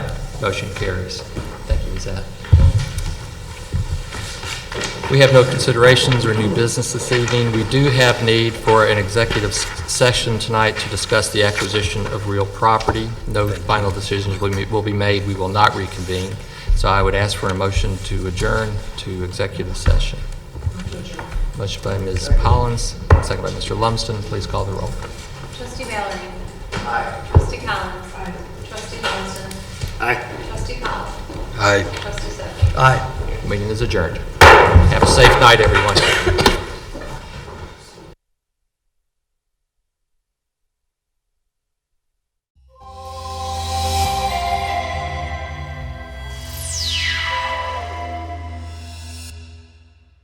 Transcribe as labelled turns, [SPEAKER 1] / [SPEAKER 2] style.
[SPEAKER 1] Motion carries. Thank you, Zach. We have no considerations or new business this evening. We do have need for an executive s- session tonight to discuss the acquisition of real property. No final decisions will be- will be made. We will not reconvene. So I would ask for a motion to adjourn to executive session. Motion by Ms. Collins, second by Mr. Lumsden. Please call the roll.
[SPEAKER 2] Trustee Valerie. Aye. Trustee Collins. Aye. Trustee Johnson. Aye. Trustee Powell. Aye. Trustee Zephyr.
[SPEAKER 1] Meeting is adjourned. Have a safe night, everyone.